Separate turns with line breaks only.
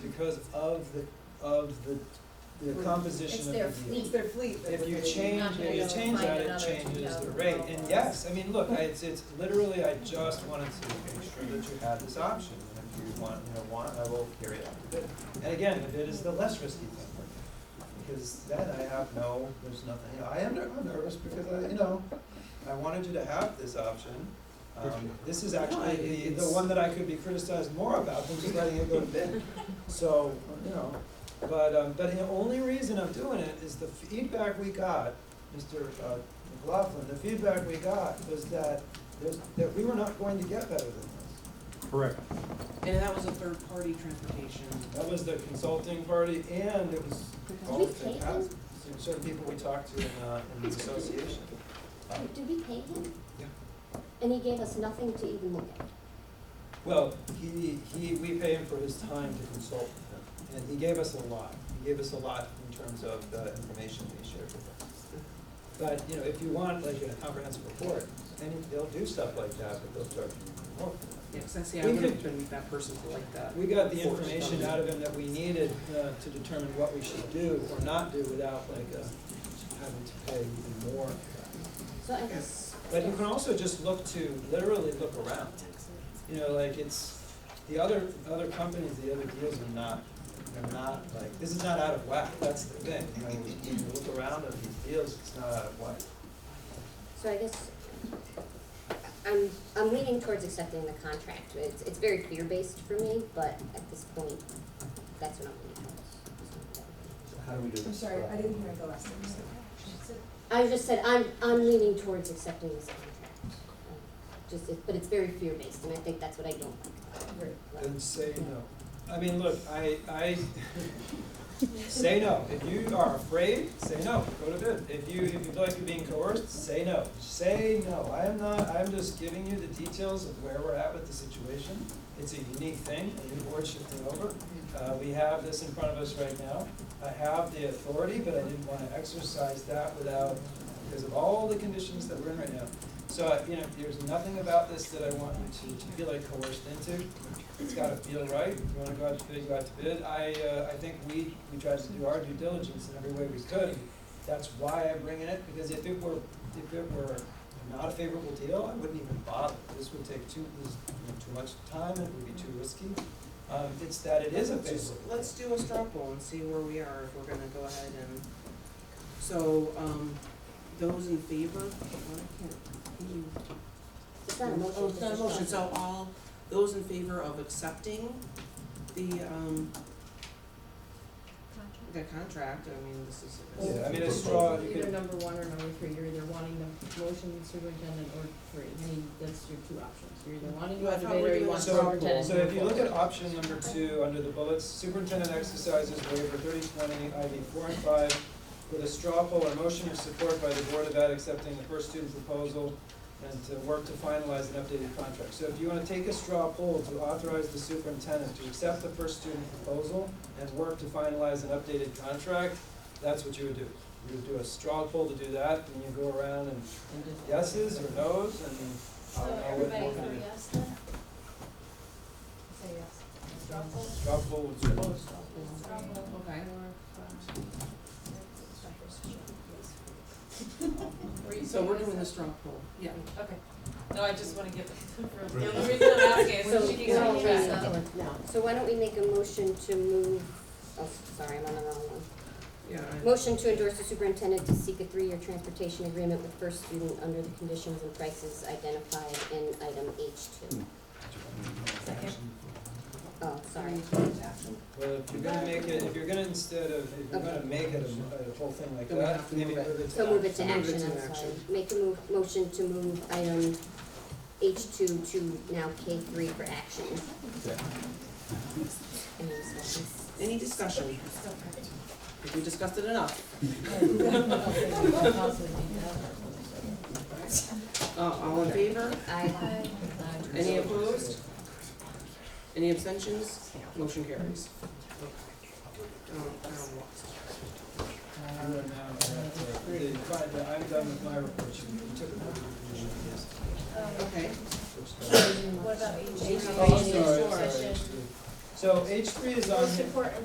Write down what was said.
because of the, of the, the composition
It's
of the
their
deal.
fleet.
It's their fleet. that
If
we're
you
paying.
change,
not
if you
gonna
change
find
that, it
another
changes the
2,000
rate, and
dollars.
yes, I mean, look, I, it's, it's literally, I just wanted to make sure that you had this option, and if you want, you know, want, I will carry it out the bid. And again, the bid is the less risky thing, because then I have no, there's nothing, you know, I am ner- I'm nervous because I, you know, I wanted you to have this option. Um, this is actually the, the one that I could be criticized more about than just letting it go to bid, so, you know. But, um, but the only reason I'm doing it is the feedback we got, Mr. uh, McLaughlin, the feedback we got was that there's, that we were not going to get better than this.
Correct.
And that was a third-party transportation.
That was the consulting party and it was all
we
of the
pay
cons-
them?
certain people we talked to in, uh, in the association.
Oh, Did we pay him?
Yeah.
And he gave us nothing to even look at.
Well, he, he, we pay him for his time to consult with him, and he gave us a lot. He gave us a lot in terms of the information that he shared with us. But, you know, if you want like a comprehensive report, then they'll do stuff like that, but they'll charge you more.
Yeah, because I see, I
We
would have
could-
been that person to like that.
We got the information out of him that we needed uh, to determine what we should do or not do without like uh, having to pay even more.
So I guess.
But you can also just look to, literally look around. You know, like it's, the other, other companies, the other deals are not, they're not like, this is not out of whack, that's the thing. You know, when you look around at these deals, it's not out of whack.
So I guess I'm, I'm leaning towards accepting the contract. It's, it's very fear-based for me, but at this point, that's what I'm leaning towards.
How do we do
I'm
this?
sorry, I didn't hear the last thing you said.
I just said, I'm, I'm leaning towards accepting this contract. Um, Just, it- but it's very fear-based, and I think that's what I don't
Great.
like.
Then say no. I mean, look, I, I, say no. If you are afraid, say no, go to bed. If you, if you feel like you're being coerced, say no. Say no. I am not, I'm just giving you the details of where we're at with the situation. It's a unique thing, a new board shifting over. Uh, we have this in front of us right now. I have the authority, but I didn't wanna exercise that without, because of all the conditions that we're in right now. So, uh, you know, there's nothing about this that I want you to, to feel like coerced into. It's gotta feel right, if you wanna go out to bid, go out to bid. I, uh, I think we, we tried to do our due diligence in every way we could. That's why I'm bringing it, because if it were, if it were not a favorable deal, I wouldn't even bother. This would take too, this, you know, too much time, it would be too risky. Um, it's that it is a
Just,
favorable.
let's do a straw poll and see where we are, if we're gonna go ahead and, so, um, those in favor? Well, I can't- hmm.
It's not a motion.
Oh, it's not a
just a
motion, so
thought.
all, those in favor of accepting the, um, the contract, I mean, this is.
Yeah, I mean, a straw, you
Either
could,
number one or number three, you're either wanting the motion superintendent or three, I mean, that's your two options, you're either wanting
Well, I thought we
motivator
were
or you
doing
want
straw
superintendent.
so if you look at option number two, under the bullets, superintendent exercises waiver thirty twenty, ID four and five, with a straw poll or motion of support by the Board of Ed accepting the first student proposal and to work to finalize an updated contract. So if you wanna take a straw poll to authorize the superintendent to accept the first student proposal and work to finalize an updated contract, that's what you would do. You would do a straw poll to do that, and you go around and yeses or no's, and I don't know what more to do.
yes then? Say yes. Straw poll?
Straw poll would be-
Okay. So we're doing the straw poll, yeah.
Okay, no, I just wanna give, for, the only reason I'm asking is
So
so she can
why don't we-
contract.
no. So why don't we make a motion to move, oh, sorry, I'm on the wrong one.
Yeah. I-
Motion to endorse the superintendent to seek a three-year transportation agreement with First Student under the conditions and prices identified in item H two. Oh, sorry.
Well, if you're gonna make it, if you're gonna instead of, if you're gonna make it a, a whole thing like
Then we
that,
have to
maybe
move it.
move it to.
So move it to
Move it
action,
to
I'm sorry.
action.
Make a move, motion to move item H two to now K three for action. Any discussions?
Any discussion? Have we discussed it enough? Uh, all in favor?
Aye.
Any opposed? Any abstentions? Motion carries. Um, um,
And then now, uh, the- the- fine, the- I'm done with my report, you you took it. Yes.
Okay,
Oops, sorry.
Um, What about
H-
Oh,
H-
sorry, sorry.
H-
So H three is on here.
support